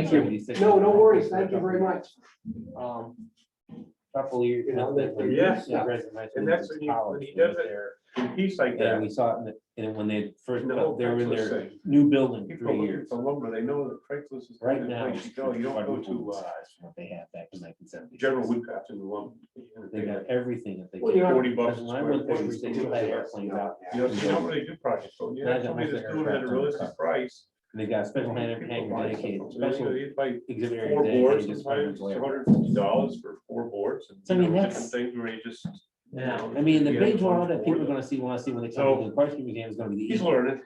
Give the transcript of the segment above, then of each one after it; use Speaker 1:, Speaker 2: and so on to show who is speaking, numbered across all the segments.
Speaker 1: Thank you. No, no worries. Thank you very much. Um, Couple years, you know, that.
Speaker 2: Yes.
Speaker 1: Yeah.
Speaker 2: And that's when you- when he does it, piece like
Speaker 1: And
Speaker 2: that.
Speaker 1: we saw it, in the- and when they first,
Speaker 2: No,
Speaker 1: they were in their
Speaker 2: Craigslist thing.
Speaker 1: new building in
Speaker 2: People
Speaker 1: three
Speaker 2: looking
Speaker 1: years.
Speaker 2: for lumber, they know that Craigslist is. the
Speaker 1: Right
Speaker 2: place
Speaker 1: now.
Speaker 2: You go, you don't go to, uh,
Speaker 1: What They had back in nineteen seventy.
Speaker 2: General Woodcraft and the lumber.
Speaker 1: They got everything that they.
Speaker 2: Well, you
Speaker 1: could.
Speaker 2: know, 40 bucks
Speaker 1: Because When I went there,
Speaker 2: square
Speaker 1: they
Speaker 2: foot.
Speaker 1: still had airplanes out.
Speaker 2: You know, you don't really do projects, so you
Speaker 1: Yeah, I
Speaker 2: have
Speaker 1: got
Speaker 2: somebody
Speaker 1: my
Speaker 2: that's
Speaker 1: second
Speaker 2: doing it at a
Speaker 1: aircraft on the
Speaker 2: realistic
Speaker 1: car.
Speaker 2: price.
Speaker 1: They got a special
Speaker 2: people
Speaker 1: hand hanging
Speaker 2: buy
Speaker 1: dedicated,
Speaker 2: something. So
Speaker 1: special
Speaker 2: you buy
Speaker 1: exhibit area
Speaker 2: Four boards,
Speaker 1: dedicated. just for
Speaker 2: sometimes
Speaker 1: them
Speaker 2: it's
Speaker 1: to lay out.
Speaker 2: two hundred and fifty dollars for four boards and.
Speaker 1: So, I
Speaker 2: you
Speaker 1: mean,
Speaker 2: know,
Speaker 1: that's-
Speaker 2: different Things where you just. you
Speaker 1: Yeah,
Speaker 2: know,
Speaker 1: I mean, the
Speaker 2: you
Speaker 1: big
Speaker 2: have
Speaker 1: draw
Speaker 2: one
Speaker 1: that people are
Speaker 2: board.
Speaker 1: gonna see when I see when they
Speaker 2: So-
Speaker 1: come to the question museum is gonna be the.
Speaker 2: He's
Speaker 1: easel.
Speaker 2: learning.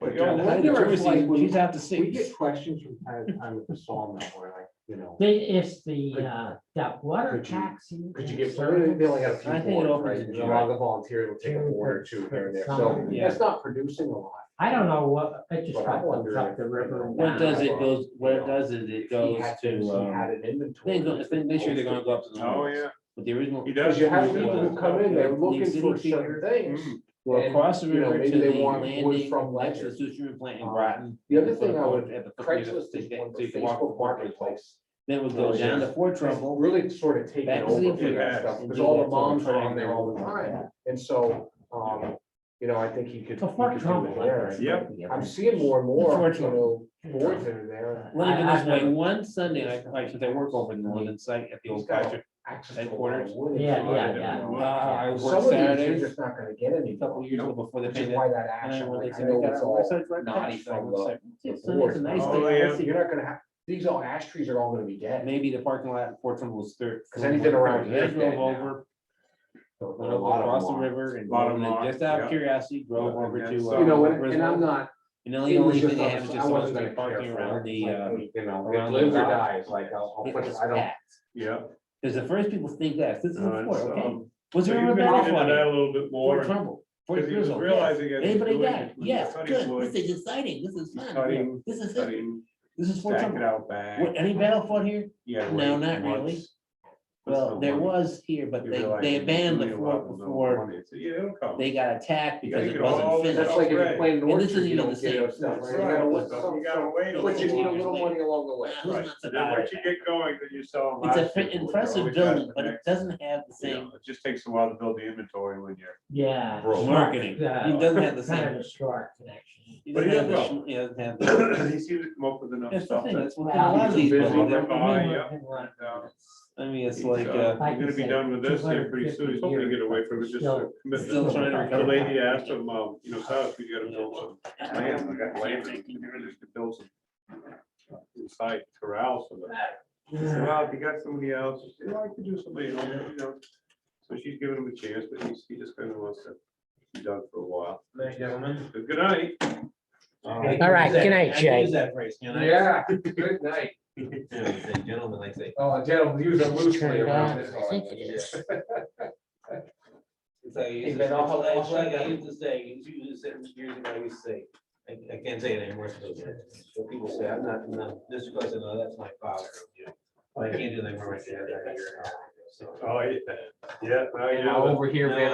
Speaker 2: But
Speaker 1: The
Speaker 2: you know,
Speaker 1: height of
Speaker 3: wonder if,
Speaker 1: Jersey,
Speaker 3: like,
Speaker 1: She's out to
Speaker 3: We
Speaker 1: sea.
Speaker 3: get questions from time to time with the sawmill where like, you know,
Speaker 4: They, it's the, uh, that water
Speaker 3: Could you-
Speaker 4: tax.
Speaker 3: could you give, somebody- they only have a few
Speaker 1: I think it
Speaker 3: boards,
Speaker 1: opens
Speaker 3: right?
Speaker 1: in
Speaker 3: And A
Speaker 1: July.
Speaker 3: lot of the volunteers will take a board or two here and there, so
Speaker 4: Something.
Speaker 3: that's not producing a lot.
Speaker 4: I don't know what, it just
Speaker 3: But I
Speaker 4: got dumped
Speaker 3: wonder
Speaker 4: up
Speaker 3: if,
Speaker 4: the
Speaker 3: you
Speaker 4: river.
Speaker 3: know,
Speaker 4: and
Speaker 1: What
Speaker 4: down.
Speaker 1: does it goes, what it does is it
Speaker 3: He
Speaker 1: goes
Speaker 3: had things,
Speaker 1: to,
Speaker 3: He
Speaker 1: um,
Speaker 3: had an inventory.
Speaker 1: they're gonna, this year they're gonna go up to the.
Speaker 2: Oh,
Speaker 1: Lawrence.
Speaker 2: yeah.
Speaker 1: But the original.
Speaker 2: He does.
Speaker 3: Because you have
Speaker 1: Yeah.
Speaker 3: people who come in, they're
Speaker 1: Yeah.
Speaker 3: looking for
Speaker 1: Exhibit
Speaker 3: certain things.
Speaker 2: Mm.
Speaker 1: Well,
Speaker 3: And,
Speaker 1: across the
Speaker 3: you know,
Speaker 1: river
Speaker 3: maybe
Speaker 1: to
Speaker 3: they
Speaker 1: the
Speaker 3: want wood
Speaker 1: landing,
Speaker 3: from
Speaker 1: next to the
Speaker 3: Ledger.
Speaker 1: sushi plant in
Speaker 3: Um,
Speaker 1: Groton.
Speaker 3: The other
Speaker 1: you put
Speaker 3: thing
Speaker 1: a
Speaker 3: I
Speaker 1: boat
Speaker 3: would,
Speaker 1: at the foot of the-
Speaker 3: Craigslist is
Speaker 1: to get-
Speaker 3: one,
Speaker 1: so you can walk
Speaker 3: Facebook
Speaker 1: the marketplace.
Speaker 3: marketplace.
Speaker 1: Then we go
Speaker 3: Oh,
Speaker 1: down
Speaker 3: yeah.
Speaker 1: to Fort
Speaker 3: Trumbull
Speaker 1: Trumbull.
Speaker 3: really sort of taken
Speaker 1: Back to
Speaker 3: over
Speaker 1: the
Speaker 3: for that
Speaker 2: Yeah.
Speaker 3: stuff, because
Speaker 1: Yeah.
Speaker 3: all the
Speaker 1: Yeah.
Speaker 3: moms are
Speaker 1: Yeah.
Speaker 3: on there all the time, and so, um, you know, I think he could.
Speaker 4: So
Speaker 3: he
Speaker 4: Fort
Speaker 3: could do
Speaker 4: Trumbull.
Speaker 3: it there.
Speaker 2: Yep.
Speaker 3: I'm seeing more and more, you
Speaker 1: Unfortunately.
Speaker 3: know, boards that are there,
Speaker 1: Let me
Speaker 4: I-
Speaker 1: put it this
Speaker 4: I've
Speaker 1: way,
Speaker 4: never-
Speaker 1: one Sunday, I, I should I work over in the London site at the
Speaker 3: He's
Speaker 1: old
Speaker 3: got
Speaker 1: Patrick.
Speaker 3: access to a lot of
Speaker 1: Headquarters.
Speaker 3: wood.
Speaker 4: Yeah,
Speaker 2: So I
Speaker 4: yeah,
Speaker 2: didn't
Speaker 4: yeah.
Speaker 2: know
Speaker 1: Uh,
Speaker 2: what-
Speaker 1: I worked
Speaker 3: Some of these you're
Speaker 1: Saturdays,
Speaker 3: just not gonna
Speaker 1: a
Speaker 3: get
Speaker 1: couple
Speaker 3: anymore,
Speaker 1: years ago before the
Speaker 3: which is
Speaker 1: pandemic.
Speaker 3: why that
Speaker 1: And then
Speaker 3: action,
Speaker 1: when they
Speaker 3: like, I
Speaker 1: said they
Speaker 3: know
Speaker 1: got
Speaker 3: it's
Speaker 1: out, I
Speaker 3: all,
Speaker 1: said, "Right,
Speaker 3: naughty
Speaker 1: that's fine."
Speaker 3: from
Speaker 1: I was
Speaker 3: the-
Speaker 1: like,
Speaker 3: the
Speaker 1: "It's Sunday's a
Speaker 3: board.
Speaker 1: nice
Speaker 2: Oh,
Speaker 1: day." I
Speaker 2: yeah.
Speaker 1: said,
Speaker 3: you're not gonna have, these all ash trees are all gonna be dead.
Speaker 1: Maybe the parking lot at Fort Trumbull's third.
Speaker 3: 'Cause anything around here
Speaker 1: They
Speaker 3: is dead
Speaker 1: drove
Speaker 3: now.
Speaker 1: over,
Speaker 3: So a
Speaker 1: went over
Speaker 3: lot of
Speaker 1: across the
Speaker 3: them are.
Speaker 1: river and
Speaker 2: Lot of
Speaker 1: drove
Speaker 2: them
Speaker 1: in,
Speaker 2: are,
Speaker 1: just out
Speaker 2: yeah.
Speaker 1: of curiosity, drove
Speaker 2: Well,
Speaker 1: over
Speaker 2: and
Speaker 1: to.
Speaker 2: that's,
Speaker 1: uh,
Speaker 3: You know, and, and I'm
Speaker 1: Brisbane.
Speaker 3: not.
Speaker 1: And the
Speaker 3: it
Speaker 1: only
Speaker 3: was
Speaker 1: only
Speaker 3: just
Speaker 1: thing they
Speaker 3: on-
Speaker 1: have is
Speaker 3: I
Speaker 1: just
Speaker 3: wasn't
Speaker 1: on
Speaker 3: gonna
Speaker 1: street parking
Speaker 3: care for it.
Speaker 1: around the, uh.
Speaker 3: You know,
Speaker 1: around
Speaker 3: it
Speaker 1: the
Speaker 3: lives or
Speaker 1: dock.
Speaker 3: dies, like, I'll, I'll
Speaker 1: It
Speaker 3: put, it-
Speaker 1: was
Speaker 3: I don't.
Speaker 1: packed.
Speaker 2: Yeah.
Speaker 1: Cause the first people think that, this is
Speaker 2: No,
Speaker 1: Fort,
Speaker 2: it's,
Speaker 1: okay,
Speaker 2: um,
Speaker 1: was
Speaker 2: So
Speaker 1: there
Speaker 2: you're
Speaker 1: ever a
Speaker 2: gonna get
Speaker 1: battle
Speaker 2: into
Speaker 1: on
Speaker 2: that
Speaker 1: it?
Speaker 2: a little bit more.
Speaker 1: Fort Trumbull, Fort
Speaker 2: Because he was
Speaker 1: Grizzle, yes.
Speaker 2: realizing. as he was
Speaker 1: Anybody
Speaker 2: doing
Speaker 1: got,
Speaker 2: it,
Speaker 1: yes,
Speaker 2: cutting
Speaker 1: good,
Speaker 2: wood,
Speaker 1: this is exciting, this is fun, yeah,
Speaker 2: Cutting,
Speaker 1: this is it,
Speaker 2: cutting,
Speaker 1: this is Fort
Speaker 2: stack it
Speaker 1: Trumbull.
Speaker 2: out back.
Speaker 1: Were any battle fought here?
Speaker 2: Yeah.
Speaker 1: No,
Speaker 2: wait,
Speaker 1: not really.
Speaker 2: once. That's
Speaker 1: Well,
Speaker 2: the
Speaker 1: there
Speaker 2: one.
Speaker 1: was here, but
Speaker 2: You
Speaker 1: they,
Speaker 2: realize
Speaker 1: they
Speaker 2: you
Speaker 1: abandoned the
Speaker 2: really
Speaker 1: fort
Speaker 2: love them, don't
Speaker 1: before
Speaker 2: want it. So, Yeah, it'll come.
Speaker 1: they got attacked
Speaker 2: You gotta
Speaker 1: because it
Speaker 2: get all
Speaker 1: wasn't
Speaker 2: the-
Speaker 1: finished.
Speaker 3: That's like if you
Speaker 2: Right.
Speaker 3: play an
Speaker 1: And this
Speaker 3: orchard,
Speaker 1: isn't
Speaker 3: you
Speaker 1: even
Speaker 3: don't
Speaker 1: the
Speaker 3: get
Speaker 1: same.
Speaker 3: enough stuff. right?
Speaker 2: That's
Speaker 3: You gotta
Speaker 2: right.
Speaker 3: let
Speaker 2: So
Speaker 3: some-
Speaker 2: you gotta
Speaker 3: some-
Speaker 2: wait a
Speaker 3: But you
Speaker 2: little
Speaker 3: need a little
Speaker 1: while.
Speaker 3: money along the way.
Speaker 1: Wow,
Speaker 2: Right.
Speaker 1: that's
Speaker 2: And then
Speaker 1: about
Speaker 2: once
Speaker 1: it.
Speaker 2: you get going, then you sell.
Speaker 1: It's a
Speaker 2: lots
Speaker 1: fit-
Speaker 2: of them.
Speaker 1: impressive
Speaker 2: Always got
Speaker 1: building,
Speaker 2: the
Speaker 1: but it
Speaker 2: next-
Speaker 1: doesn't have the
Speaker 2: you
Speaker 1: same
Speaker 2: know, It just takes a while to build the inventory when you're.
Speaker 4: Yeah.
Speaker 3: Bro.
Speaker 1: marketing. It
Speaker 4: Yeah.
Speaker 1: doesn't have the
Speaker 4: Kind
Speaker 1: same.
Speaker 4: of a short connection.
Speaker 1: it doesn't
Speaker 2: But he
Speaker 1: have
Speaker 2: does
Speaker 1: the sh- yeah, it doesn't have the-
Speaker 2: He seems to come up with enough
Speaker 1: That's the
Speaker 2: stuff.
Speaker 1: thing,
Speaker 2: that-
Speaker 1: that's what a lot of these.
Speaker 2: Busy,
Speaker 1: people do.
Speaker 2: they're behind, yeah.
Speaker 1: I mean, it's
Speaker 2: he's,
Speaker 1: like,
Speaker 2: uh,
Speaker 1: uh,
Speaker 4: Like
Speaker 2: We're
Speaker 4: you
Speaker 2: gonna be
Speaker 4: said,
Speaker 2: done with this here pretty soon. He's hoping to
Speaker 4: 250
Speaker 2: get away from it just.
Speaker 4: Still-
Speaker 1: still trying to
Speaker 2: The
Speaker 1: recover.
Speaker 2: lady asked him, uh, you know, Silas, we gotta build some land, we got land, and we could build some. Inside corrals for them. He said, Well, if you got somebody else, you know, I could do somebody, else, you know. So she's giving him a chance, but he's, he just kind of wants to be done for a while.
Speaker 1: gentlemen.
Speaker 2: But Good night.
Speaker 4: All right, good night, Shay.
Speaker 3: Yeah, good night.
Speaker 1: Gentlemen, I say.
Speaker 3: Oh, gentlemen, use them loosely
Speaker 4: Turn it
Speaker 3: around
Speaker 4: on,
Speaker 3: this.
Speaker 4: I think it is.
Speaker 1: It's like, I
Speaker 3: Hey,
Speaker 1: used to
Speaker 3: Ben,
Speaker 1: say,
Speaker 3: I'll- I'll-
Speaker 1: it's like I used to say, you usually said years ago, I used to say, I, I can't say it anymore. so it's- so people say, I'm not, no, this person, no, that's my father. you know. Well, I can't do that for my dad. I gotta hear it out. So-
Speaker 2: Oh, yeah, yeah, well, you
Speaker 3: Now
Speaker 2: know.
Speaker 3: over here, man,